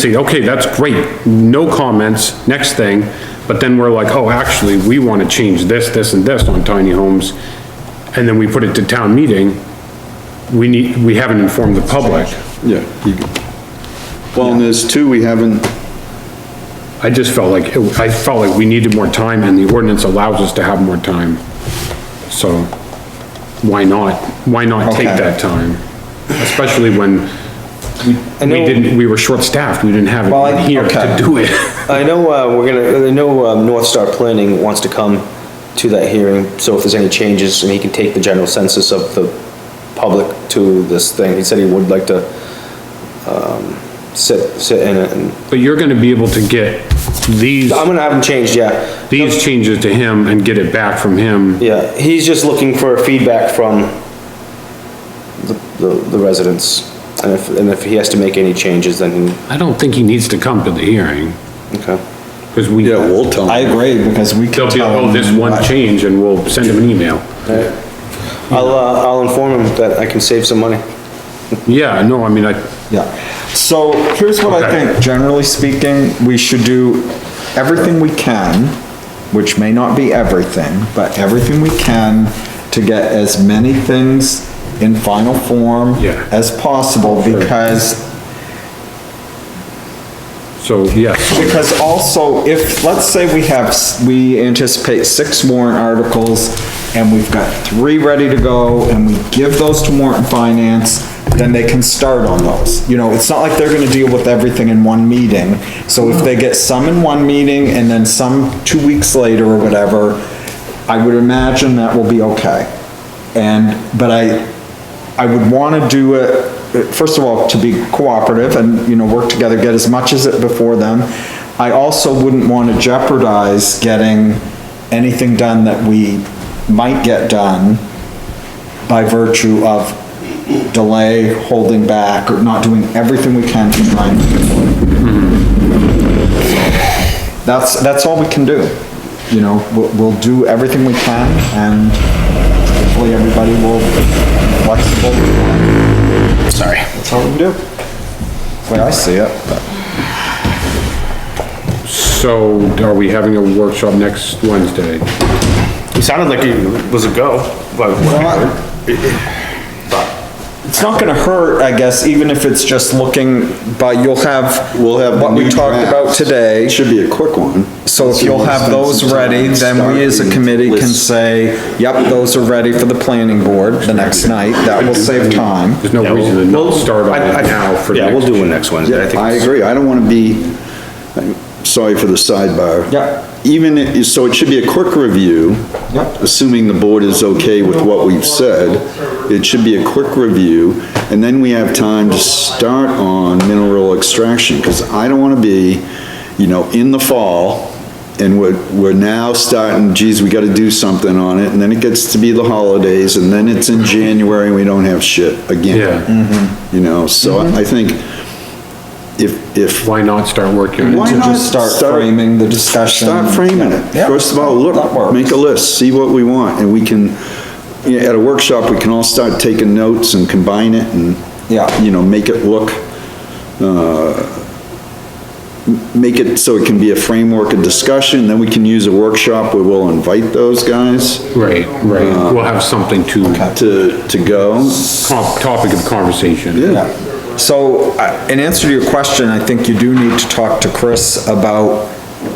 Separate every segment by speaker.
Speaker 1: See, okay, that's great, no comments, next thing, but then we're like, oh, actually, we wanna change this, this, and this on tiny homes, and then we put it to town meeting, we need, we haven't informed the public.
Speaker 2: Yeah. you- Well, and there's two, we haven't,
Speaker 1: I just felt like, it- I felt like we needed more time, and the ordinance allows us to have more time. So, why not, why not take
Speaker 2: Okay.
Speaker 1: that time? Especially when we- we
Speaker 3: know-
Speaker 1: didn't, we were short-staffed, we didn't have
Speaker 3: Well, I-
Speaker 1: it here to
Speaker 2: okay.
Speaker 1: do it.
Speaker 3: I know, uh, we're gonna, I know, um, North Star Planning wants to come to that hearing, so if there's any changes, and he can take the general census of the public to this thing, he said he would like to, um, sit, sit in it, and,
Speaker 1: But you're gonna be able to get these,
Speaker 3: I'm gonna have him changed, yeah.
Speaker 1: these changes to him and get it back from him.
Speaker 3: Yeah, he's just looking for feedback from the, the- the residents, and if, and if he has to make any changes, then, he-
Speaker 1: I don't think he needs to come to the hearing,
Speaker 3: okay.
Speaker 1: because we,
Speaker 2: yeah,
Speaker 1: they'll
Speaker 2: we'll tell
Speaker 4: I
Speaker 2: them.
Speaker 4: agree, because we can
Speaker 1: be,
Speaker 4: tell.
Speaker 1: oh, this
Speaker 4: them
Speaker 1: one
Speaker 4: what-
Speaker 1: change, and we'll send him an email.
Speaker 3: I'll, uh, I'll inform him that I can save some money.
Speaker 1: Yeah, no, I mean, I,
Speaker 4: Yeah, so here's what I
Speaker 1: Okay.
Speaker 4: think, generally speaking, we should do everything we can, which may not be everything, but everything we can to get as many things in final form
Speaker 1: Yeah.
Speaker 4: as possible, because
Speaker 1: so, yes.
Speaker 4: Because also, if, let's say we have, s- we anticipate six warrant articles, and we've got three ready to go, and we give those to warrant and finance, then they can start on those. You know, it's not like they're gonna deal with everything in one meeting. So if they get some in one meeting, and then some two weeks later or whatever, I would imagine that will be okay. And, but I, I would want to do it, first of all, to be cooperative and, you know, work together, get as much as it before them. I also wouldn't want to jeopardize getting anything done that we might get done by virtue of delay, holding back, or not doing everything we can to try and. That's, that's all we can do. You know, we'll, we'll do everything we can and hopefully everybody will be flexible. Sorry. That's all we can do. That's the way I see it, but.
Speaker 1: So are we having a workshop next Wednesday?
Speaker 3: He sounded like he was a go, but
Speaker 4: It's not gonna hurt, I guess, even if it's just looking, but you'll have.
Speaker 2: We'll have
Speaker 4: What we
Speaker 2: new
Speaker 4: talked about
Speaker 2: drafts.
Speaker 4: today.
Speaker 2: Should be a quick one.
Speaker 4: So if you'll have those ready, then we as a committee can say, yep, those are ready for the planning board the next night. That will save time.
Speaker 1: There's no reason to not start on it now for
Speaker 3: Yeah, we'll
Speaker 1: next.
Speaker 3: do it next Wednesday, I think.
Speaker 2: I
Speaker 3: it's-
Speaker 2: agree, I don't wanna be, sorry for the sidebar.
Speaker 4: Yeah.
Speaker 2: Even, i- so it should be a quick review.
Speaker 4: Yep.
Speaker 2: Assuming the board is okay with what we've said, it should be a quick review, and then we have time to start on mineral extraction, cause I don't wanna be, you know, in the fall, and we're, we're now starting, geez, we gotta do something on it, and then it gets to be the holidays, and then it's in January, and we don't have shit again.
Speaker 1: Yeah.
Speaker 2: You know, so I I think if, if,
Speaker 1: Why not start working on it?
Speaker 2: Why
Speaker 4: To
Speaker 2: not
Speaker 4: just start
Speaker 2: start-
Speaker 4: framing the discussion.
Speaker 2: start framing it.
Speaker 4: Yeah.
Speaker 2: First of all,
Speaker 4: That
Speaker 2: look,
Speaker 4: works.
Speaker 2: make a list, see what we want, and we can, you know, at a workshop, we can all start taking notes and combine it and,
Speaker 4: Yeah.
Speaker 2: you know, make it look, uh, m- make it so it can be a framework of discussion, then we can use a workshop where we'll invite those guys
Speaker 1: Right, right. We'll have something to,
Speaker 2: to, to go.
Speaker 1: com- topic of conversation.
Speaker 2: Yeah.
Speaker 4: Yeah. So, uh, in answer to your question, I think you do need to talk to Chris about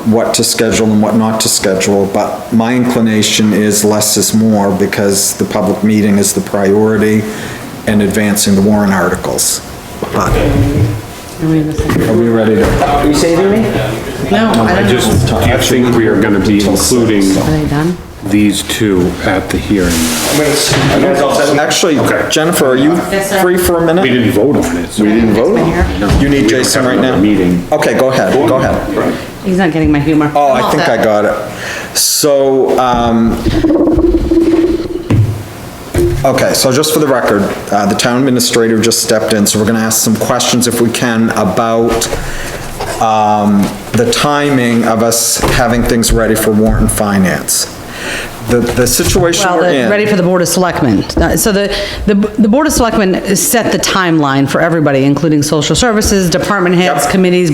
Speaker 4: what to schedule and what not to schedule, but my inclination is less is more, because the public meeting is the priority and advancing the warrant articles. But,
Speaker 5: Are we in the same-
Speaker 4: are we ready to?
Speaker 3: Are you saving me?
Speaker 5: No, I
Speaker 1: I
Speaker 5: don't know.
Speaker 1: just, do you think we are gonna be including
Speaker 5: Are they done?
Speaker 1: these two at the hearing?
Speaker 4: Actually,
Speaker 1: Okay.
Speaker 4: Jennifer, are you
Speaker 5: Yes, sir.
Speaker 4: free for a
Speaker 1: We
Speaker 4: minute?
Speaker 1: didn't vote on it. so-
Speaker 5: didn't vote
Speaker 1: We
Speaker 4: You need
Speaker 1: don't
Speaker 4: Jason
Speaker 1: have
Speaker 4: right
Speaker 1: another
Speaker 4: now?
Speaker 1: Meeting.
Speaker 4: Okay, go ahead, go ahead.
Speaker 5: He's not getting my humor.
Speaker 4: Oh,
Speaker 5: I'm
Speaker 4: I
Speaker 5: all
Speaker 4: think
Speaker 5: set.
Speaker 4: I got it. So, um, okay, so just for the record, uh, the town administrator just stepped in, so we're gonna ask some questions if we can about, um, the timing of us having things ready for warrant and finance. The, the situation
Speaker 5: Well,
Speaker 4: we're
Speaker 5: the-
Speaker 4: in.
Speaker 5: ready for the Board of Selectmen. Uh, So the, the, the Board of Selectmen set the timeline for everybody, including social services, department heads,
Speaker 4: Yep.
Speaker 5: committees,